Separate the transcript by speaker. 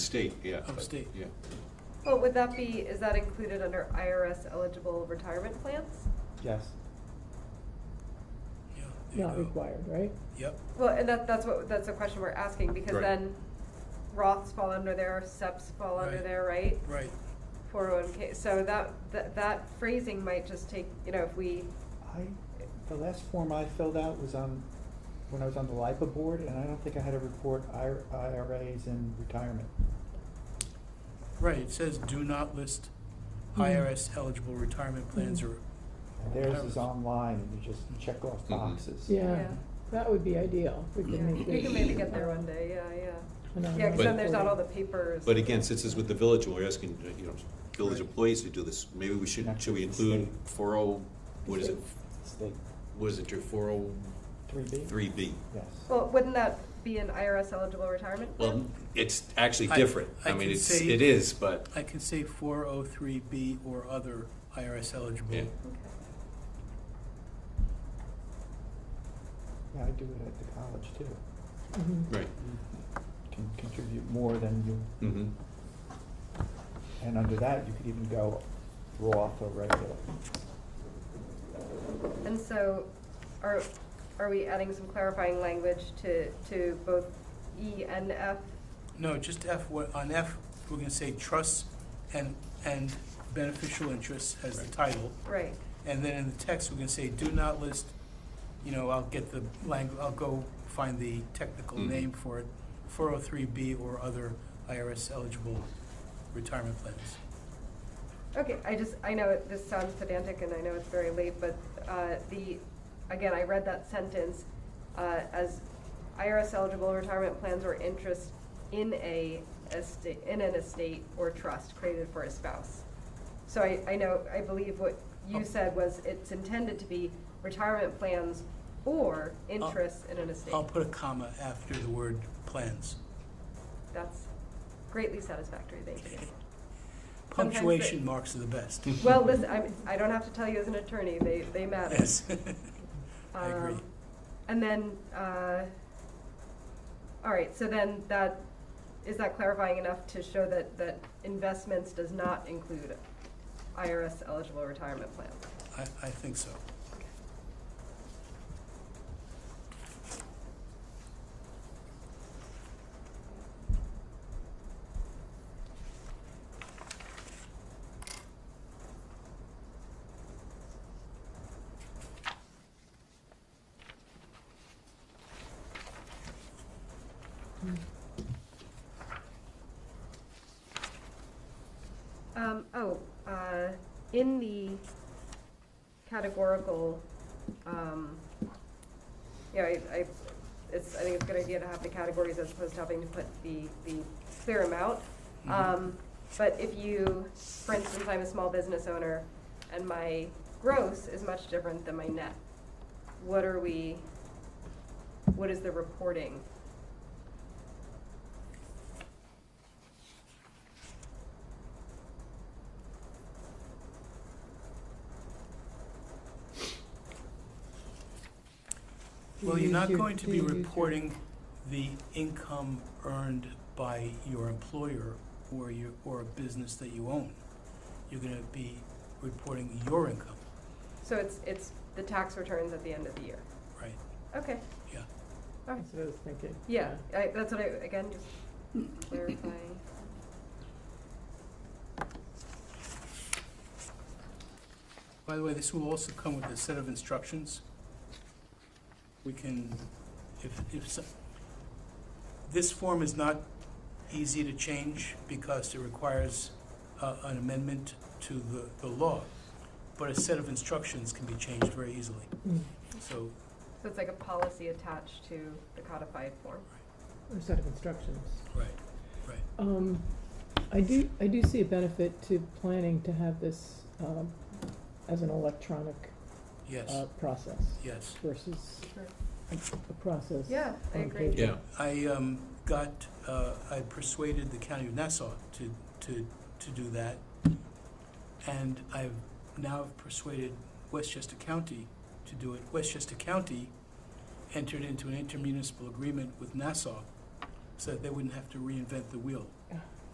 Speaker 1: state, yeah.
Speaker 2: Of
Speaker 1: but-
Speaker 2: state.
Speaker 1: Yeah.
Speaker 3: But would that be, is that included under IRS eligible retirement plans?
Speaker 4: Yes.
Speaker 2: Yeah, there
Speaker 5: Not
Speaker 2: you go.
Speaker 5: required, right?
Speaker 2: Yep,
Speaker 3: Well, and that, that's what, that's the question we're asking, because
Speaker 1: Right.
Speaker 3: then Roths fall under there, SEPs fall under
Speaker 2: Right.
Speaker 3: there, right?
Speaker 2: right,
Speaker 3: Four oh one K, so that, that, that phrasing might just take, you know, if we,
Speaker 4: I, the last form I filled out was on, when I was on the LIPA board, and I don't think I had to report IR IRAs in retirement.
Speaker 2: right, it says do not list
Speaker 5: Mm-hmm.
Speaker 2: IRS eligible retirement plans or,
Speaker 4: And theirs is online, and you just check off
Speaker 1: Mhm.
Speaker 4: boxes.
Speaker 5: Yeah,
Speaker 3: Yeah.
Speaker 5: that would be ideal. We
Speaker 3: yeah,
Speaker 5: could make
Speaker 3: we
Speaker 5: this.
Speaker 3: can maybe get there one day, yeah, yeah.
Speaker 5: an
Speaker 3: Yeah,
Speaker 5: online
Speaker 3: cause then
Speaker 1: But-
Speaker 3: there's not all the
Speaker 5: portal.
Speaker 3: papers.
Speaker 1: But again, since it's with the village, and we're asking, uh, you know, village
Speaker 2: Right.
Speaker 1: employees to do this, maybe we should, should we include four oh, what is it,
Speaker 4: It's the
Speaker 1: what is it, your four oh
Speaker 4: three B?
Speaker 1: three B?
Speaker 4: Yes.
Speaker 3: Well, wouldn't that be an IRS eligible retirement
Speaker 1: Well,
Speaker 3: plan?
Speaker 1: it's actually
Speaker 2: I-
Speaker 1: different,
Speaker 2: I
Speaker 1: I mean,
Speaker 2: can
Speaker 1: it's,
Speaker 2: say-
Speaker 1: it is, but,
Speaker 2: I can say four oh three B or other IRS
Speaker 1: yeah,
Speaker 2: eligible.
Speaker 3: Okay.
Speaker 4: Yeah, I do it at the college too.
Speaker 5: Mhm.
Speaker 2: Mm-hmm.
Speaker 1: right,
Speaker 4: You Can contribute more than you,
Speaker 1: mm-hmm,
Speaker 4: and under that, you could even go Roth or regular.
Speaker 3: And so, are, are we adding some clarifying language to, to both E and F?
Speaker 2: No, just F, what- on F, we're gonna say trusts and, and beneficial interests as the title.
Speaker 3: Right,
Speaker 2: And then in the text, we're gonna say, do not list, you know, I'll get the language, I'll go find the technical
Speaker 1: Mhm.
Speaker 2: name for it, four oh three B or other IRS eligible retirement plans.
Speaker 3: okay, I just, I know it- this sounds pedantic and I know it's very late, but, uh, the, again, I read that sentence, uh, as IRS eligible retirement plans or interest in a estate, in an estate or trust created for a spouse. So I, I know, I believe what
Speaker 2: Oh.
Speaker 3: you said was it's intended to be retirement plans or interests in an estate.
Speaker 2: I'll put a comma after the word plans.
Speaker 3: That's greatly satisfactory, thank you. Sometimes
Speaker 2: Punctuation
Speaker 3: they-
Speaker 2: marks are the best.
Speaker 3: Well, uh, listen, I'm, I don't have to tell you as an attorney, they, they matter.
Speaker 2: Yes. I agree.
Speaker 3: Um, And then, uh, all right, so then that, is that clarifying enough to show that, that investments does not include IRS eligible retirement plans?
Speaker 2: I, I think so.
Speaker 3: Um, oh, uh, in the categorical, um, yeah, I, I, it's, I think it's a good idea to have the categories as opposed to having to put the, the clear amount.
Speaker 2: Mhm.
Speaker 3: Um, but if you, for instance, I'm a small business owner and my gross is much different than my net, what are we, what is the reporting?
Speaker 5: Do
Speaker 2: Well, you're
Speaker 5: you
Speaker 2: not
Speaker 5: do-
Speaker 2: going to
Speaker 5: do
Speaker 2: be
Speaker 5: you do-
Speaker 2: reporting the income earned by your employer or your, or a business that you own. You're gonna be reporting your income,
Speaker 3: So it's, it's the tax returns at the end of the year.
Speaker 2: right?
Speaker 3: Okay,
Speaker 2: Yeah.
Speaker 3: all right.
Speaker 5: That's what I was thinking.
Speaker 3: Yeah, I, that's what I, again, just clarifying.
Speaker 2: By the way, this will also come with a set of instructions. We can, if, if, so- this form is not easy to change because it requires uh, an amendment to the, the law, but a set of instructions can be changed very easily.
Speaker 5: Mm.
Speaker 2: So,
Speaker 3: So it's like a policy attached to the codified form.
Speaker 5: Or set of instructions.
Speaker 2: right,
Speaker 5: Um, I do, I do see a benefit to planning to have this, um, as an electronic,
Speaker 2: yes,
Speaker 5: uh, process
Speaker 2: yes.
Speaker 5: versus
Speaker 3: Sure.
Speaker 5: a, a process.
Speaker 3: Yeah, I
Speaker 5: on
Speaker 3: agree.
Speaker 5: paper.
Speaker 1: yeah,
Speaker 2: I um, got, uh, I persuaded the county of Nassau to, to, to do that. And I've now persuaded Westchester County to do it. Westchester County entered into an intermunicipal agreement with Nassau so that they wouldn't have to reinvent the wheel.